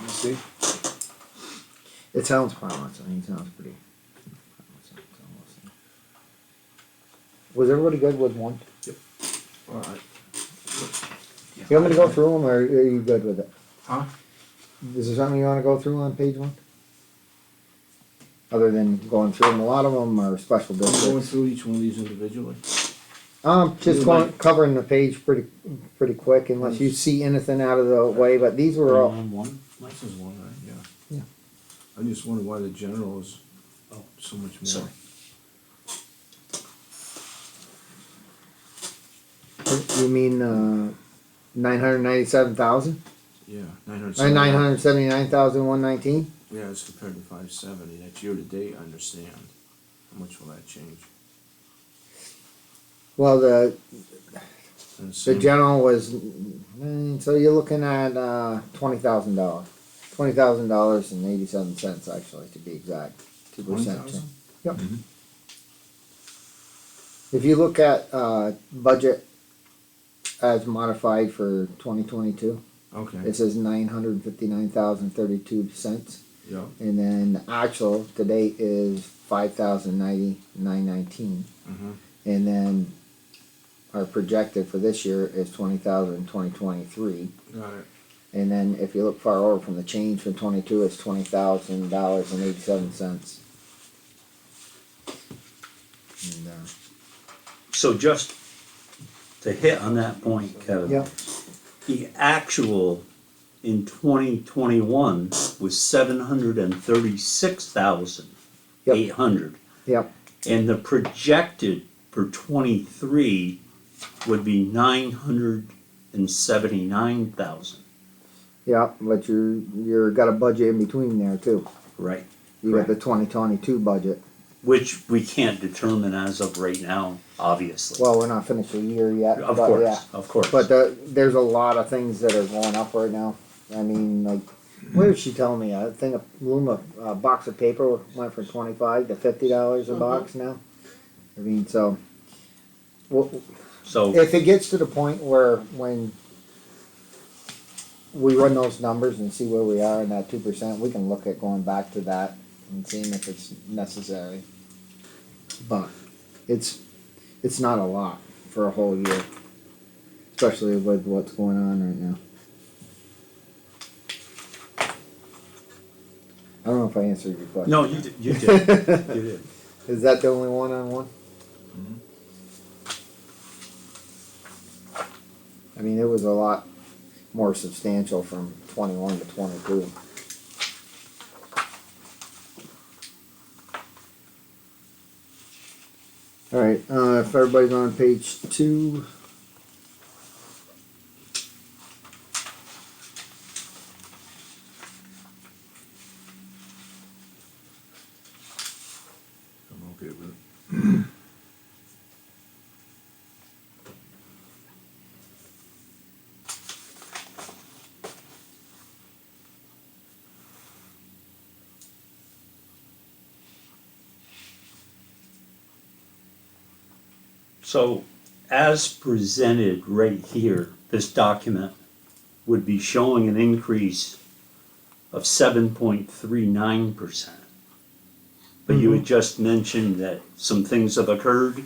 You see? It sounds promising. I mean, it sounds pretty. promising, it's almost- Was everybody good with one? Alright. You want me to go through them, or are you good with it? Huh? Is there something you wanna go through on page one? Other than going through them, a lot of them are special Going districts. through each one of these individually. Um, just You going, like- covering the page pretty, pretty quick unless you see anything out of the way, but these were all, Line one, This is one, right? Yeah. Yeah. I just wonder why the general is Oh. so much more. Sorry. you mean, uh, nine hundred ninety-seven thousand? Yeah, nine hundred. Or nine hundred seventy-nine thousand one nineteen? Yeah, it's compared to five seventy, that's year to date, I understand. How much will that change? Well, the, And the same- general was, mm, so you're looking at, uh, twenty thousand dollars. Twenty thousand dollars and eighty-seven cents actually, to be exact, two percent. 20,000? Yep. Mm-hmm. If you look at, uh, budget as modified for twenty twenty-two, Okay, it says nine hundred fifty-nine thousand thirty-two cents. yeah, And then the actual to date is five thousand ninety-nine nineteen. mhm, And then our projected for this year is twenty thousand in twenty twenty-three. got it, And then if you look far over from the change from twenty-two, it's twenty thousand dollars and eighty-seven cents. And, uh, so just to hit on that point, Kevin. Yeah. The actual in twenty twenty-one was seven hundred and thirty-six thousand eight hundred. Yep, And the projected for twenty-three would be nine hundred and seventy-nine thousand, yep, but you're, you're got a budget in between there too. right? You got the twenty twenty-two budget. Which we can't determine as of right now, obviously. Well, we're not finished the year yet, Of but yeah. course, of course. But the, there's a lot of things that are going up right now. I mean, like, where is she telling me? I think a loom of, a box of paper went from twenty-five to fifty dollars a box now. I mean, so. w- So. If it gets to the point where when we run those numbers and see where we are in that two percent, we can look at going back to that and seeing if it's necessary. But it's, it's not a lot for a whole year, especially with what's going on right now. I don't know if I answered your question. No, you did, you did, you did. Is that the only one on one? I mean, it was a lot more substantial from twenty-one to twenty-two. Alright, uh, if everybody's on page two. I'm okay with it. So as presented right here, this document would be showing an increase of seven point three nine percent. But you had just mentioned that some things have occurred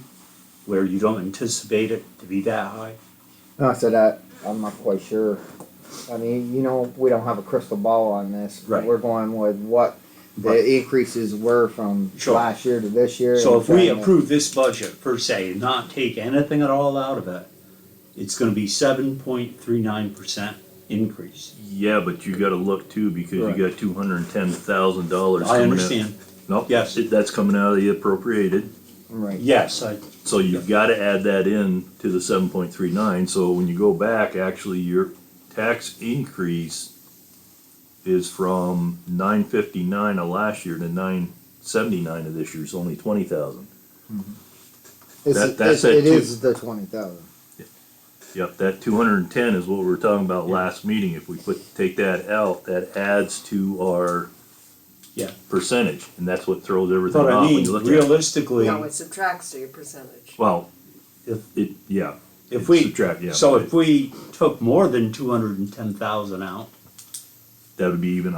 where you don't anticipate it to be that high. No, so that, I'm not quite sure. I mean, you know, we don't have a crystal ball on this. Right. We're going with what Right. the increases were from Sure. last year to this year. So and if we trying to- approve this budget per se and not take anything at all out of it, it's gonna be seven point three nine percent increase. Yeah, but you gotta look too, because you Right. got two hundred and ten thousand dollars I coming in. understand, Nope, Yes. it- that's coming out of the appropriated, Right. yes, I, so you've gotta add that in to the seven point three nine, so when you go back, actually, your tax increase is from nine fifty-nine of last year to nine seventy-nine of this year, it's only twenty thousand. It's, That- it's- that's it it too. is the twenty thousand. Yep, that two hundred and ten is what we were talking about last meeting, if we put, take that out, that adds to our Yeah. percentage, and that's what throws everything But I off when mean, you look at it. realistically, No, it subtracts to your percentage. Well, If- it, yeah. if it we, subtract, yeah, so but if we took more than two hundred and ten thousand out, that would be even